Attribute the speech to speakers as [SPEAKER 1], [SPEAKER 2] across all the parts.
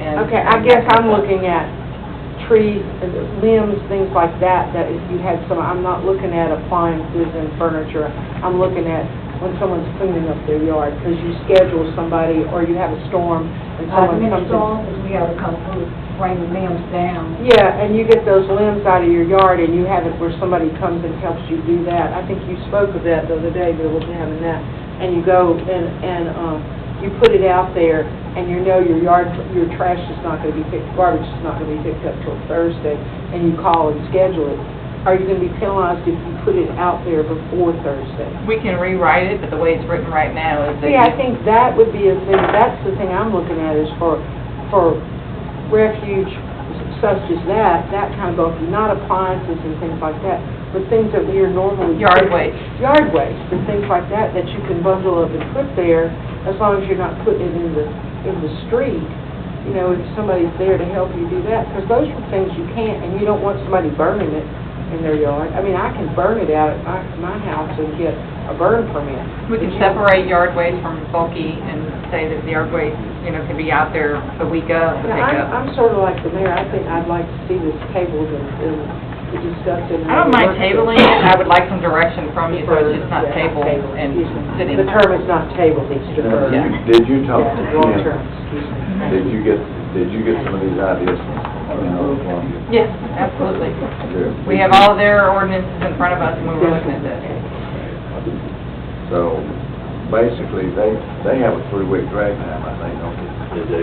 [SPEAKER 1] and.
[SPEAKER 2] Okay, I guess I'm looking at trees, limbs, things like that, that if you had some, I'm not looking at appliances and furniture. I'm looking at when someone's cleaning up their yard, because you schedule somebody, or you have a storm, and
[SPEAKER 3] Uh,
[SPEAKER 1] I've
[SPEAKER 2] someone
[SPEAKER 1] been
[SPEAKER 2] comes in.
[SPEAKER 1] told that we ought to come through, bring the limbs down.
[SPEAKER 2] Yeah, and you get those limbs out of your yard, and you have it where somebody comes and helps you do that. I think you spoke of that the other day, Bill, was having that. And you go and, and, um, you put it out there, and you know your yard, your trash is not gonna be picked, garbage is not gonna be picked up till Thursday, and you call and schedule it. Are you gonna be penalized if you put it out there before Thursday?
[SPEAKER 3] We can rewrite it, but the way it's written right now is that.
[SPEAKER 2] See, I think that would be a thing, that's the thing I'm looking at is for, for refuge such as that, that kind of stuff, not appliances and things like that, but things that we are normally.
[SPEAKER 3] Yard waste.
[SPEAKER 2] Yard waste and things like that, that you can bundle up and put there, as long as you're not putting it in the, in the street. You know, if somebody's there to help you do that, because those are things you can't, and you don't want somebody burning it in their yard. I mean, I can burn it out at my, my house and get a burn permit.
[SPEAKER 3] We can
[SPEAKER 2] But you-
[SPEAKER 3] separate yard waste from bulky and say that the yard waste, you know, can be out there the week of, the
[SPEAKER 2] Yeah,
[SPEAKER 3] pick
[SPEAKER 2] I'm,
[SPEAKER 3] up.
[SPEAKER 2] I'm sort of like the mayor, I think I'd like to see this tabled and, and be discussed in.
[SPEAKER 3] I don't mind tabling it, I would like some direction from you, so
[SPEAKER 2] Deferred,
[SPEAKER 3] it's just not
[SPEAKER 2] yeah,
[SPEAKER 3] tabled
[SPEAKER 2] tabled,
[SPEAKER 3] and
[SPEAKER 2] excuse me.
[SPEAKER 3] sitting.
[SPEAKER 2] The term is not tabled, it's
[SPEAKER 4] Now,
[SPEAKER 2] deferred.
[SPEAKER 3] Yeah.
[SPEAKER 4] you- Did you talk,
[SPEAKER 2] Yeah,
[SPEAKER 4] to
[SPEAKER 2] long
[SPEAKER 4] Kim?
[SPEAKER 2] term, excuse me.
[SPEAKER 4] did you get, did you get some of these ideas from, you know, from
[SPEAKER 3] Yes, absolutely.
[SPEAKER 4] your-
[SPEAKER 3] We have all their ordinances in front of us when we're looking at this.
[SPEAKER 4] So, basically, they, they have a three-week drag time, I think, don't they?
[SPEAKER 5] They do.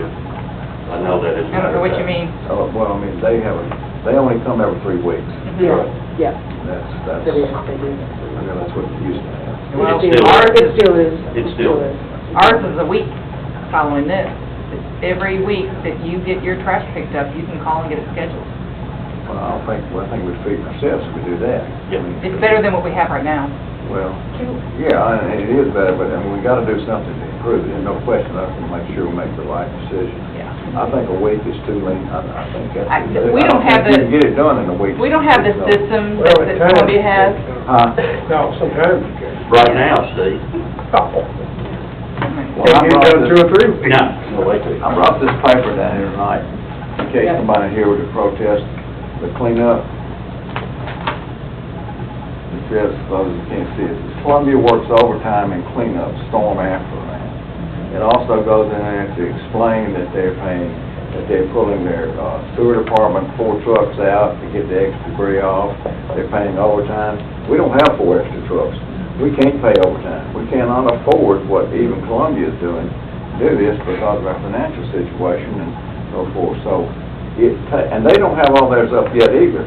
[SPEAKER 5] I know that is.
[SPEAKER 3] I don't know what you mean.
[SPEAKER 4] Oh, well, I mean, they have, a they only come every three weeks.
[SPEAKER 2] Yeah, yeah,
[SPEAKER 4] That's,
[SPEAKER 2] that
[SPEAKER 4] that's,
[SPEAKER 2] is,
[SPEAKER 4] I
[SPEAKER 2] they do.
[SPEAKER 4] know that's what it used to have.
[SPEAKER 3] Well,
[SPEAKER 2] It
[SPEAKER 5] still-
[SPEAKER 2] ours- It still is.
[SPEAKER 5] It still is.
[SPEAKER 3] Ours is a week following this. It's Every week that you get your trash picked up, you can call and get it scheduled.
[SPEAKER 4] Well, I don't think, well, I think we'd feed ourselves if we do that.
[SPEAKER 5] Yeah.
[SPEAKER 3] It's better than what we have right now.
[SPEAKER 4] Well, yeah, I- it is better, but, I mean, we gotta do something to improve it, no question, I can make sure we make the right decision.
[SPEAKER 3] Yeah.
[SPEAKER 4] I think a week is too lean, I, I think that's.
[SPEAKER 3] I- we
[SPEAKER 4] I
[SPEAKER 3] don't have
[SPEAKER 4] think
[SPEAKER 3] the-
[SPEAKER 4] You can get it done in a week.
[SPEAKER 3] We don't have the
[SPEAKER 4] No.
[SPEAKER 3] system that that Columbia has.
[SPEAKER 4] Huh?
[SPEAKER 6] No, sometimes you can.
[SPEAKER 5] Right now, Steve.
[SPEAKER 3] Oh
[SPEAKER 4] Well, I
[SPEAKER 6] Get it
[SPEAKER 4] brought
[SPEAKER 6] done
[SPEAKER 4] this-
[SPEAKER 6] two or three weeks.
[SPEAKER 5] No. No, wait till-
[SPEAKER 4] I brought this paper down here tonight, in case
[SPEAKER 2] Yeah.
[SPEAKER 4] somebody here were to protest the cleanup. It says, for those who can't see it, it says, Columbia works overtime in cleanup, storm aftermath. It also goes in there to explain that they're paying, that they're pulling their uh, sewer department four trucks out to get the extra debris off, they're paying overtime. We don't have four extra trucks, we can't pay overtime, we cannot afford what even Columbia is doing do this because of our financial situation and so forth, so it, ta- and they don't have all theirs up yet either.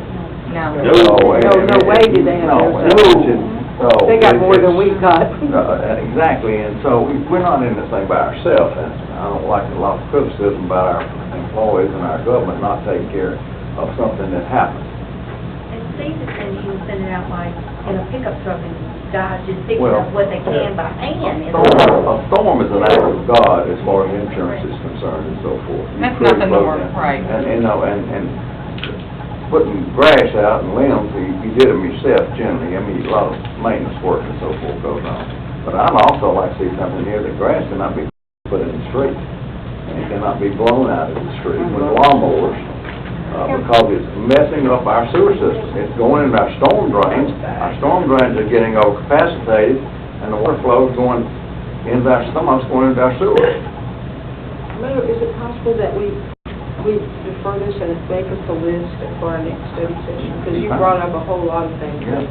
[SPEAKER 3] No.
[SPEAKER 5] No.
[SPEAKER 4] So, I
[SPEAKER 2] No, no
[SPEAKER 4] mean,
[SPEAKER 2] way
[SPEAKER 4] it-
[SPEAKER 2] do they have
[SPEAKER 4] no,
[SPEAKER 2] theirs up.
[SPEAKER 4] it's just- so
[SPEAKER 2] They got
[SPEAKER 4] it-
[SPEAKER 2] more than we
[SPEAKER 4] it's-
[SPEAKER 2] got.
[SPEAKER 4] uh, Exactly, and so we- we're not in this thing by ourselves, and I don't like a lot of criticism about our employees and our government not taking care of something that happens.
[SPEAKER 7] And Steve is saying he was sending out like, in a pickup truck and guys just picking
[SPEAKER 4] Well- Oh,
[SPEAKER 7] up what they can by hand.
[SPEAKER 4] A storm- a storm is an act of God as far as insurance is concerned and so forth. You
[SPEAKER 3] That's
[SPEAKER 4] prove
[SPEAKER 3] nothing to
[SPEAKER 4] both
[SPEAKER 3] work-
[SPEAKER 4] ends.
[SPEAKER 3] right.
[SPEAKER 4] And, you know, and, and putting grass out and limbs, you, you did them yourself generally, I mean, a lot of maintenance work and so forth goes on. But I'd also like to see something here, that grass cannot be put in the street, and it cannot be blown out of the street with
[SPEAKER 3] Uh-huh.
[SPEAKER 4] lawnmowers, uh, because it's messing up our sewer system, it's going into our storm drains, our storm drains are getting overcapacitated, and the water flow is going into our, some of it's going into our sewer.
[SPEAKER 2] Mayor, is it possible that we, we defer this and make us a list for our next study session? Because you brought up a whole lot of things
[SPEAKER 4] Yeah.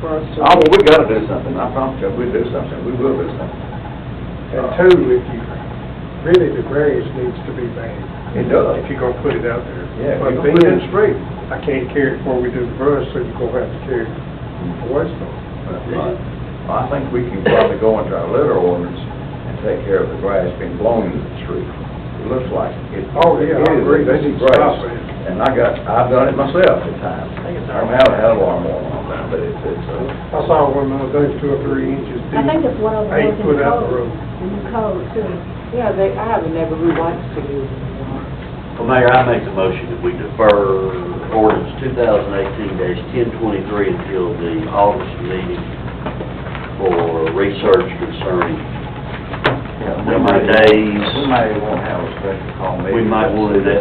[SPEAKER 2] for us to.
[SPEAKER 4] Oh, well, we gotta do something, I promise you, we do something, we will do something.
[SPEAKER 6] And two, if you, really, the grass needs to be banned,
[SPEAKER 4] It does.
[SPEAKER 6] if you're gonna put it out there.
[SPEAKER 4] Yeah,
[SPEAKER 6] But
[SPEAKER 4] if you
[SPEAKER 6] put it in
[SPEAKER 4] can.
[SPEAKER 6] the street, I can't carry it before we do the brush, so you're gonna have to carry it for waste on.
[SPEAKER 4] Well, I think we can probably go into our litter ordinance and take care of the grass being blown into the street. It looks like it.
[SPEAKER 6] Oh, yeah, I
[SPEAKER 4] it is
[SPEAKER 6] agree. They need to
[SPEAKER 4] grass.
[SPEAKER 6] stop it.
[SPEAKER 4] And I got, I've done it myself at times. I don't have a hell of a lot more on that, but it's, it's, uh,
[SPEAKER 6] I saw one of those two or three inches
[SPEAKER 1] I
[SPEAKER 6] deep.
[SPEAKER 1] think it's one of the
[SPEAKER 6] Eight
[SPEAKER 1] ones in
[SPEAKER 6] foot out the
[SPEAKER 1] code.
[SPEAKER 6] road.
[SPEAKER 1] The new code too.
[SPEAKER 2] Yeah, they, I have a neighbor who likes to do that.
[SPEAKER 5] Well, Mayor, I make the motion that we defer ordinance two thousand eighteen ten twenty-three until the August meeting for research concerning
[SPEAKER 4] Yeah, we
[SPEAKER 5] Number of
[SPEAKER 4] might-
[SPEAKER 5] days.
[SPEAKER 4] We might want to have a special call meeting.
[SPEAKER 5] We might want to do that